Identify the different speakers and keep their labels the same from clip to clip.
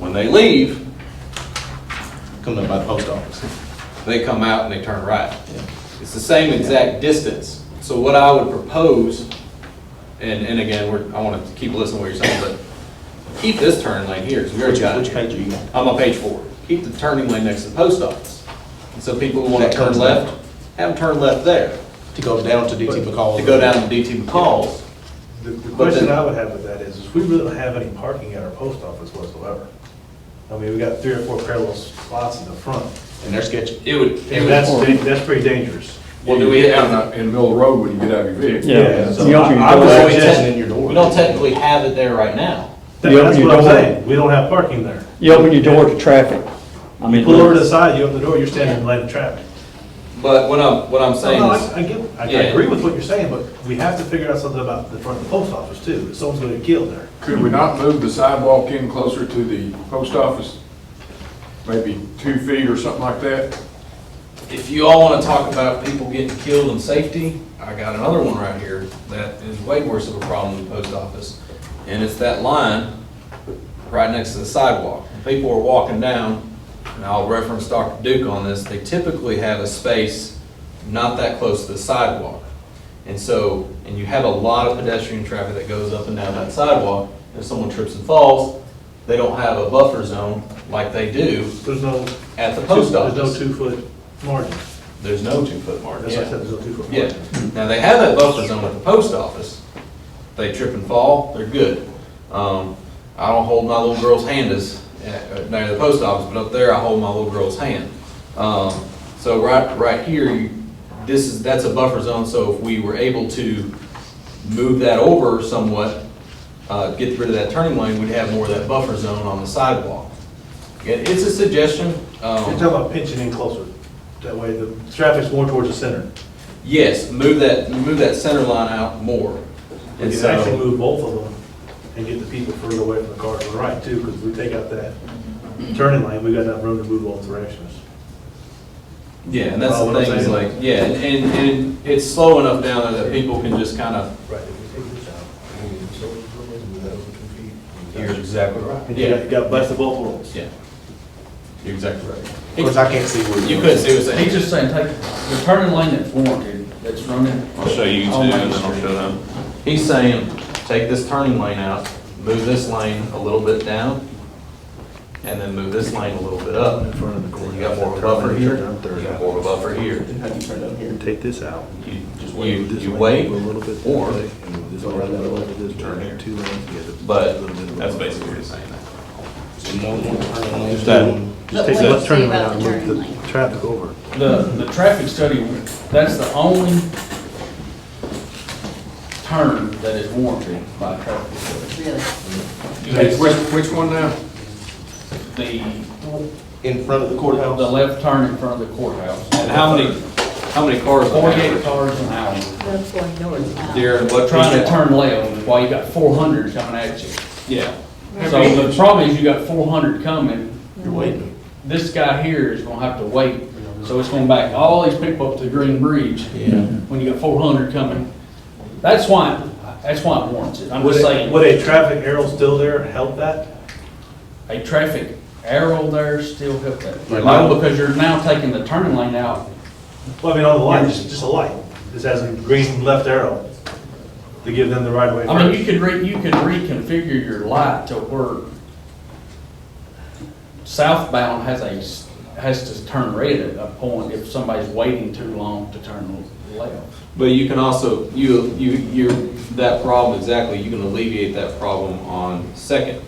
Speaker 1: they leave, come up by the post office. They come out and they turn right. It's the same exact distance. So what I would propose, and, and again, we're, I want to keep listening to what you're saying, but keep this turn lane here, because we already
Speaker 2: Which
Speaker 1: got it.
Speaker 2: which page are you on?
Speaker 1: I'm on page four. Keep the turning lane next to the post office. And so people who want
Speaker 2: That
Speaker 1: to turn
Speaker 2: comes
Speaker 1: left, have them turn left there
Speaker 2: To go down to DT McCall?
Speaker 1: to go down to DT McCall's.
Speaker 3: The- The
Speaker 1: But
Speaker 3: question
Speaker 1: then-
Speaker 3: I would have with that is, is we really don't have any parking at our post office whatsoever. I mean, we got three or four parallel spots in the front,
Speaker 2: And they're sketchy.
Speaker 1: It would, it
Speaker 3: and
Speaker 1: would-
Speaker 3: that's, da- that's pretty dangerous.
Speaker 4: Well, do we have, in the- uh, in the middle of the road when you get out of your vehicle?
Speaker 5: Yeah.
Speaker 3: So
Speaker 5: You open your
Speaker 3: I- I would
Speaker 5: door.
Speaker 1: we
Speaker 3: suggest-
Speaker 2: in your door.
Speaker 1: We don't technically have it there right now.
Speaker 3: that-
Speaker 5: You open
Speaker 3: That's
Speaker 5: your
Speaker 3: what I'm
Speaker 5: door.
Speaker 3: saying, we don't have parking there.
Speaker 5: You open your door to traffic. I mean,
Speaker 3: Pull over to the side, you open the door, you're standing in line of traffic.
Speaker 1: But what I'm, what I'm saying
Speaker 3: No,
Speaker 1: is,
Speaker 3: I I get, I I
Speaker 1: Yeah.
Speaker 3: agree with what you're saying, but we have to figure out something about the front of the post office too, if someone's gonna get killed there.
Speaker 4: Could we not move the sidewalk in closer to the post office? Maybe two feet or something like that?
Speaker 1: if you all want to talk about people getting killed and safety, I got another one right here that is way worse of a problem than the post office. And it's that line right next to the sidewalk. People are walking down, and I'll reference Dr. Duke on this, they typically have a space not that close to the sidewalk. And so, and you have a lot of pedestrian traffic that goes up and down that sidewalk. If someone trips and falls, they don't have a buffer zone like they do
Speaker 3: There's no.
Speaker 1: at the post office.
Speaker 3: There's no two-foot margin.
Speaker 1: There's no two-foot margin.
Speaker 3: That's what I said, there's no two-foot
Speaker 1: Yeah,
Speaker 3: margin.
Speaker 1: now they have that buffer zone at the post office. They trip and fall, they're good. Um, I don't hold my little girl's hand as, uh, near the post office, but up there I hold my little girl's hand. Um, so right, right here, you, this is, that's a buffer zone, so if we were able to move that over somewhat, uh, get rid of that turning lane, we'd have more of that buffer zone on the sidewalk. It, it's a suggestion, um.
Speaker 3: You're talking about pinching in closer, that way the traffic's more towards the center.
Speaker 1: Yes, move that, move that center line out more.
Speaker 3: We
Speaker 1: And
Speaker 3: can actually
Speaker 1: so,
Speaker 3: move both of them and get the people further away from the car to the right too, because we take out that turning lane, we got enough room to move both directions.
Speaker 1: yeah, and that's
Speaker 3: Follow
Speaker 1: the
Speaker 3: what I'm
Speaker 1: thing, is like,
Speaker 3: saying?
Speaker 1: yeah, and, and- and it's slow enough down there that people can just kind of,
Speaker 3: Right.
Speaker 1: you're exactly right.
Speaker 3: And you got,
Speaker 1: Yeah,
Speaker 3: you got best of both worlds.
Speaker 1: yeah. You're exactly right.
Speaker 2: Of course, I can't see where you.
Speaker 1: You couldn't see what's
Speaker 6: He's
Speaker 1: saying.
Speaker 6: just saying, take the turning lane that's warranted, that's running. Oh,
Speaker 7: I'll show you two
Speaker 6: on
Speaker 7: and
Speaker 6: Main
Speaker 7: then I'll
Speaker 6: Street.
Speaker 7: show them.
Speaker 1: He's saying, take this turning lane out, move this lane a little bit down, and then move this lane a little bit up.
Speaker 3: front of the
Speaker 1: You got more of a buffer here, you got more of a buffer here.
Speaker 2: How do you turn down here?
Speaker 3: Take this out.
Speaker 1: You, you- you wait, or
Speaker 2: Turn here.
Speaker 1: But
Speaker 7: That's basically what he's saying.
Speaker 2: So no more turning lanes.
Speaker 3: Just that, just
Speaker 8: But
Speaker 3: take
Speaker 8: what
Speaker 3: that turning
Speaker 8: you say
Speaker 3: lane
Speaker 8: about
Speaker 3: out and
Speaker 8: the
Speaker 3: move
Speaker 8: turning
Speaker 3: the
Speaker 8: lane?
Speaker 3: traffic over.
Speaker 6: The, the traffic study, that's the only turn that is warranted by traffic study.
Speaker 8: Really?
Speaker 4: Hey, Which, which one now?
Speaker 6: The,
Speaker 2: In front of the
Speaker 6: the
Speaker 2: courthouse.
Speaker 6: left turn in front of the courthouse.
Speaker 1: And how many, how many cars? on
Speaker 6: Forty-eight
Speaker 1: average?
Speaker 6: cars an hour,
Speaker 8: That's going north now.
Speaker 1: Darren, what?
Speaker 6: trying to turn left while you got four hundred coming at you.
Speaker 1: Yeah.
Speaker 6: So the problem is you got four hundred coming,
Speaker 2: You're waiting.
Speaker 6: this guy here is gonna have to wait, so it's gonna back all these people up to the Green Bridge. When you got four hundred coming, that's why, that's why it warrants it, I'm
Speaker 3: Would
Speaker 6: just
Speaker 3: a,
Speaker 6: saying,
Speaker 3: would a traffic arrow still there help that?
Speaker 6: a traffic arrow there still helped that. No, because you're now taking the turning lane out,
Speaker 3: Well, I mean, on the line, just, just a light, just has a green left arrow to give them the right of way.
Speaker 6: I mean,
Speaker 3: first.
Speaker 6: you could re, you could reconfigure your light to where southbound has a, s- has to turn red at a point if somebody's waiting too long to turn left.
Speaker 1: But you can also, you, you, you're, that problem, exactly, you can alleviate that problem on Second.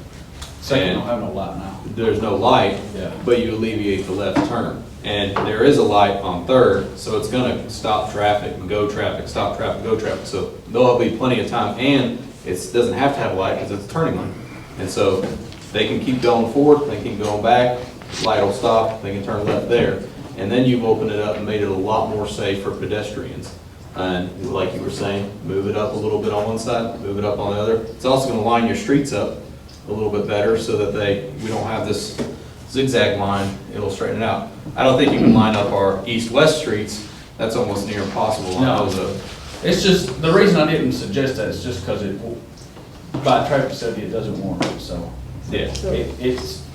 Speaker 6: Second,
Speaker 1: And-
Speaker 6: don't have no light now.
Speaker 1: There's no light,
Speaker 6: Yeah.
Speaker 1: but you alleviate the left turn. And there is a light on Third, so it's gonna stop traffic and go traffic, stop traffic, go traffic. So there'll be plenty of time, and it's, doesn't have to have light because it's a turning lane. And so they can keep going forward, they can keep going back, light will stop, they can turn left there. And then you've opened it up and made it a lot more safe for pedestrians. And like you were saying, move it up a little bit on one side, move it up on the other. It's also gonna line your streets up a little bit better so that they, we don't have this zigzag line, it'll straighten it out. I don't think you can line up our east-west streets, that's almost near impossible.
Speaker 6: No.
Speaker 1: That was a-
Speaker 6: It's just, the reason I didn't suggest that is just because it, by traffic study, it doesn't warrant it, so.
Speaker 1: Yeah.
Speaker 6: It, it's,